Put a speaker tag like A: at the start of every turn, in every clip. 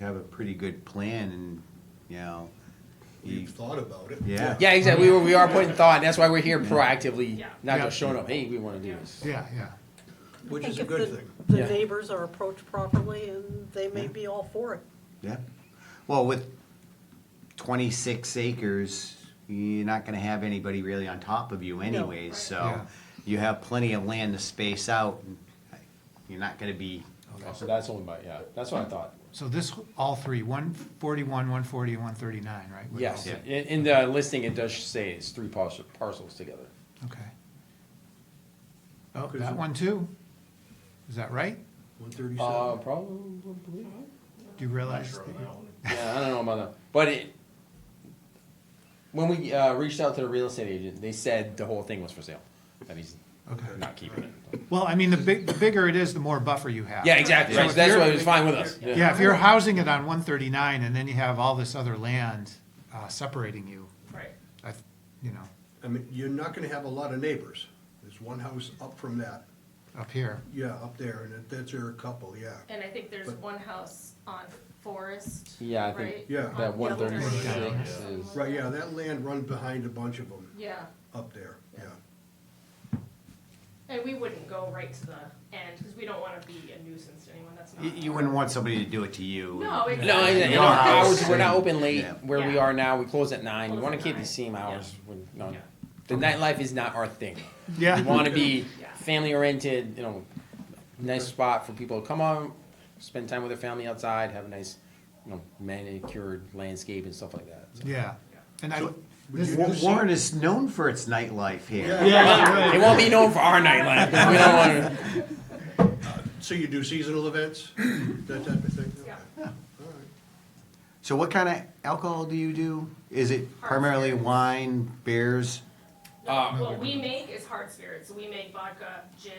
A: have a pretty good plan and, you know, you-
B: We've thought about it.
A: Yeah.
C: Yeah, exactly. We, were, we are putting thought. That's why we're here proactively,
D: Yeah.
C: not
E: Yeah.
C: just showing up. Hey, we want to do this.
E: Yeah, yeah.
B: Which
F: think
B: is a
F: if
B: good
F: the-
B: thing.
F: The
C: Yeah.
F: neighbors are approached properly and they may be all for it.
A: yeah. Well, with twenty-six acres, you're not gonna have anybody really on top of you anyways, so
E: Yeah.
A: you have plenty of land to space out. and You're not gonna be,
C: Okay, Oh, so that's only by yeah. That's what I thought.
E: So this, all three, one forty-one, one forty, and one thirty-nine, right? Would
C: Yes,
E: all-
C: in, in the listing it does say it's three parcel, parcels together.
E: Okay. Oh, that one too? Is that right?
B: One
C: Uh,
B: thirty-seven.
C: probably.
E: Do you realize? that you-
C: Yeah, I don't know about that, but it. When we uh, reached out to the real estate agent, they said the whole thing was for sale, that he's
E: Okay.
C: not keeping it.
E: Well, I mean, the big, the bigger it is, the more buffer you have.
C: Yeah, exactly.
E: Ah. So
C: Right.
E: if
C: That's
E: you're-
C: why it was fine with us.
E: Yeah, if you're housing it on one thirty-nine and then you have all this other land, uh, separating you,
D: Right.
E: I, you know,
B: I mean, you're not gonna have a lot of neighbors. There's one house up from that,
E: up here.
B: yeah, up there, and that- that's your couple, yeah.
D: And I think there's
B: But-
D: one house on Forest,
C: Yeah, I
D: right?
C: think
B: Yeah.
D: On-
C: that one thirty
D: yeah.
C: six is.
B: Right, yeah, that land run behind a bunch of them
D: Yeah,
B: up there, yeah.
D: and we wouldn't go right to the end, because we don't wanna be a nuisance to anyone, that's not.
A: you, you wouldn't want somebody to do it to you.
D: No,
A: And-
D: exactly.
C: No, and- and
A: Your
C: our
A: house
C: hours, we're
A: and-
C: not open late
A: Yeah.
C: where we
D: Yeah.
C: are now. We close at nine. We
D: Close
C: want
D: at
C: to keep the
D: nine.
C: same hours.
D: Yeah.
C: We're- no.
D: Yeah.
C: The nightlife is not our thing.
E: Yeah.
C: We want to be
D: Yeah.
C: family oriented, you know, nice spot for people to come on, spend time with their family outside, have a nice, you know, manicured landscape and stuff like that. So-
E: Yeah, and I, this,
A: Wa-
E: this-
A: Warren is known for its nightlife here.
C: It won't be known for our nightlife. 'cause we don't want to.
B: So you do seasonal events, that type of thing?
D: Yeah.
B: Okay. All right.
A: So what kind of alcohol do you do? Is it primarily wine, beers?
D: No,
C: Um,
D: what we make is hard spirits, we make vodka, gin,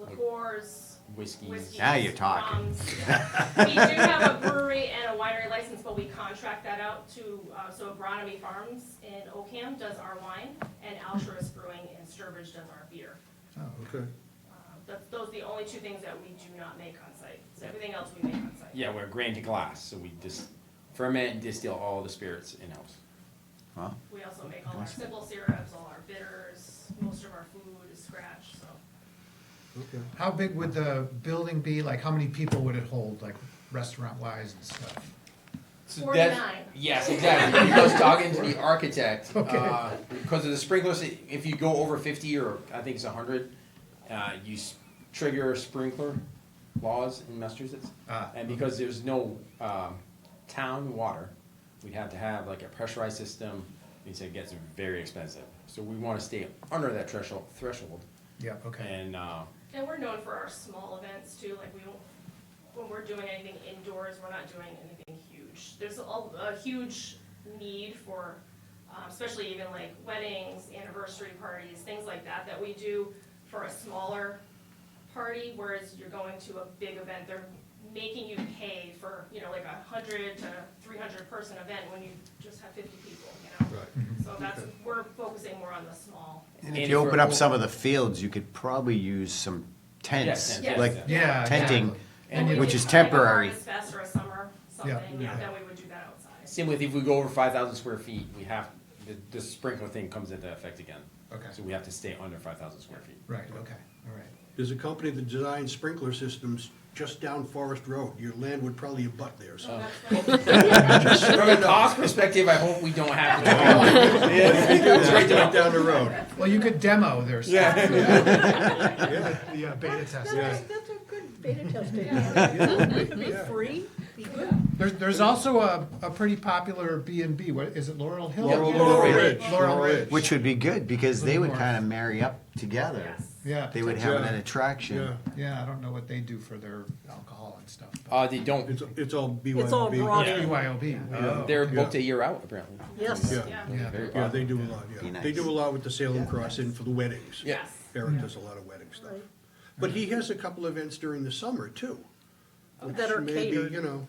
D: liqueurs,
C: Whiskey.
D: whiskeys.
A: Now you're talking.
D: rums. We do have a brewery and a winery license, but we contract that out to, uh, so Agronomy Farms in Oakham does our wine, and Altruist Brewing in Sturbridge does our beer.
B: Okay.
D: That's, those are the only two things that we do not make on site. So everything else we make on site.
C: Yeah, we're grand to glass, so we just ferment and distill all the spirits in house.
A: Well,
D: We also make all our simple syrups, all our bitters, most of our food is scratch, so.
B: Okay.
E: how big would the building be? Like, how many people would it hold, like restaurant wise and stuff?
C: So that's-
D: 49.
C: Yes, exactly. He was talking to the architect, uh, because of the sprinklers, i- if you go over fifty or I think it's hundred, uh, you s- trigger sprinkler laws in Massachusetts.
E: Ah.
C: And because there's no, um, town water, we'd have to have like a pressurized system, and so it gets very expensive. So we wanna stay under that threshold, threshold,
E: Yeah, okay.
C: and, uh,
D: And we're known for our small events too, like we don't, when we're doing anything indoors, we're not doing anything huge. There's a, a huge need for, um, especially even like weddings, anniversary parties, things like that, that we do for a smaller party, whereas you're going to a big event, they're making you pay for, you know, like a hundred to three hundred person event when you just have fifty people, you know?
B: Right.
D: So that's,
B: Okay.
D: we're focusing more on the small.
A: And
C: And
A: if you
C: for-
A: open up some of the fields, you could probably use some tents,
C: Yeah, tents,
A: like
C: yeah.
E: Yeah.
A: tenting,
E: exactly.
D: And we
A: which
D: would
A: is
D: do, like, a
A: temporary.
D: harvest fest or a summer something, yeah, then we would do that outside.
C: Same with if we go over five thousand square feet, we have, the, the sprinkler thing comes into effect again.
E: Okay.
C: So we have to stay under five thousand square feet.
E: Right, okay, all right.
B: There's a company that designs sprinkler systems just down Forest Road. Your land would probably abut theirs.
D: So that's what-
C: From a cost perspective, I hope we don't have to. Straight
B: Right down the road.
E: Well, you could demo their stuff.
B: Yeah,
E: Yeah, beta test.
F: That's
B: Yeah.
F: a, that's a good beta testing. It could be free, be good.
E: There's, there's also a, a pretty popular B and B, what, is it Laurel Hill?
B: Laurel- Laurel Ridge.
E: Laurel Ridge.
A: which would be good because they would
E: Little
A: kind of marry up together.
D: Yes.
E: Yeah,
A: They would
E: potentially.
A: have
B: Yeah.
A: an attraction.
B: Yeah,
E: Yeah, I don't know what they do for their alcohol and stuff. but-
C: Uh, they don't,
B: it's, it's all BYOB.
F: It's all broad.
C: Yeah.
E: BYOB. yeah.
C: they're booked a year out apparently.
F: Yes.
B: Yeah.
D: Yeah,
E: Yeah.
C: Very
B: Yeah,
C: popular.
B: they do a lot,
A: Be
B: yeah.
A: nice.
B: They do a lot with the Salem Cross Inn for the weddings.
C: Yeah.
D: yes.
B: Eric does a lot of wedding stuff.
F: Right.
B: But he has a couple events during the summer too. which
F: Oh, That are
B: may be,
F: catered.
B: You know,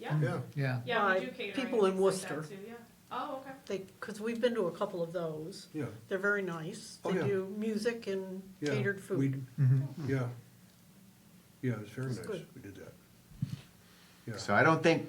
D: Yeah,
B: yeah.
E: Yeah,
D: yeah, we
F: By
D: do catering.
F: people in
D: and things like
F: Worcester.
D: that too, yeah. Oh, okay.
F: They, because we've been to a couple of those.
B: Yeah.
F: They're very nice.
B: Oh,
F: They
B: yeah.
F: do music and
B: yeah.
F: catered
B: We-
E: Mm-hmm.
F: food.
B: Yeah. Yeah, it was very
F: It's
B: nice.
F: good.
B: We did that. Yeah.
A: So I don't think